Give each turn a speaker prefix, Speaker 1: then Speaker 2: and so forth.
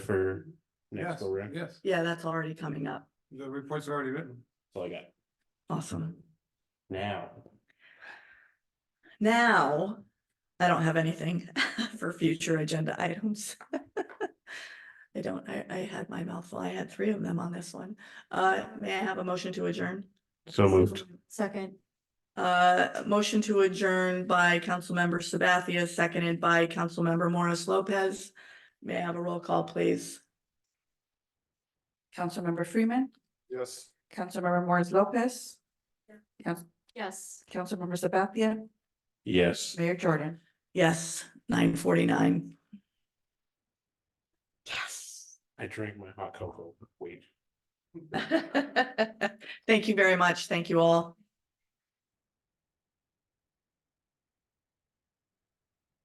Speaker 1: for next
Speaker 2: Yes,
Speaker 1: go round?
Speaker 2: yes,
Speaker 3: Yeah, that's already coming up.
Speaker 2: the reports are already written.
Speaker 1: That's all I got
Speaker 3: Awesome.
Speaker 1: now.
Speaker 3: Now, I don't have anything for future agenda items. I don't, I, I had my mouthful. I had three of them on this one. Uh, may I have a motion to adjourn?
Speaker 1: So moved.
Speaker 4: Second,
Speaker 3: Uh, motion to adjourn by Councilmember Sabathia, seconded by Councilmember Morris Lopez. May I have a roll call, please?
Speaker 5: Councilmember Freeman,
Speaker 2: Yes.
Speaker 5: Councilmember Morris Lopez,
Speaker 4: yes.
Speaker 5: Councilmember Sabathia,
Speaker 1: Yes.
Speaker 5: Mayor Jordan.
Speaker 3: Yes, nine forty-nine.
Speaker 5: Yes.
Speaker 1: I drank my hot cocoa. Wait.
Speaker 3: Thank you very much. Thank you all.